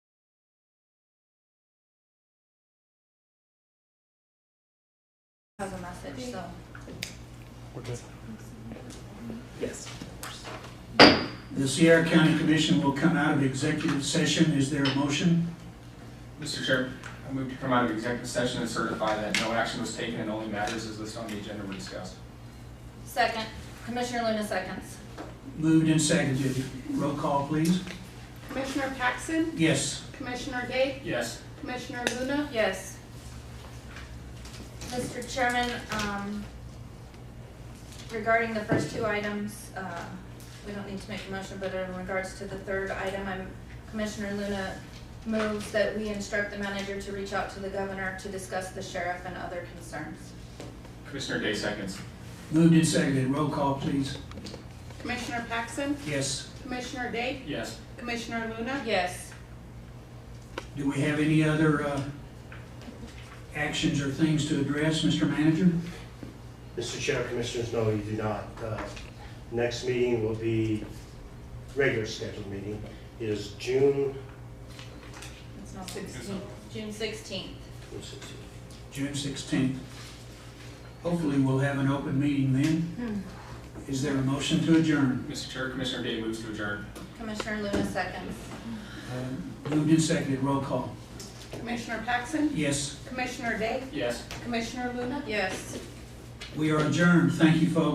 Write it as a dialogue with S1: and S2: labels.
S1: has a message, so.
S2: We're good.
S3: Yes.
S4: The Sierra County Commission will come out of executive session. Is there a motion?
S3: Mr. Chair, I move to come out of executive session and certify that no action was taken and only matters as listed on the agenda were discussed.
S1: Second, Commissioner Luna seconds.
S4: Moved and seconded. Roll call, please.
S5: Commissioner Paxson,
S4: Yes.
S5: Commissioner Day,
S3: Yes.
S5: Commissioner Luna,
S1: Yes. Mr. Chairman, um, regarding the first two items, uh, we don't need to make a motion, but in regards to the third item, I'm, Commissioner Luna moves that we instruct the manager to reach out to the governor to discuss the sheriff and other concerns.
S3: Commissioner Day seconds.
S4: Moved and seconded. Roll call, please.
S5: Commissioner Paxson,
S4: Yes.
S5: Commissioner Day,
S3: Yes.
S5: Commissioner Luna,
S1: Yes.
S4: Do we have any other uh, actions or things to address, Mr. Manager?
S6: Mr. Chair, Commissioners, no, you do not. Uh, Next meeting will be, regular scheduled meeting is June
S1: It's not sixteenth, June sixteenth.
S6: let's see,
S4: June 16th. Hopefully, we'll have an open meeting then. Is there a motion to adjourn?
S3: Mr. Chair, Commissioner Day moves to adjourn.
S1: Commissioner Luna seconds.
S4: Uh, Moved and seconded. Roll call.
S5: Commissioner Paxson,
S4: Yes.
S5: Commissioner Day,
S3: Yes.
S5: Commissioner Luna,
S1: Yes.
S4: We are adjourned. Thank you, folks.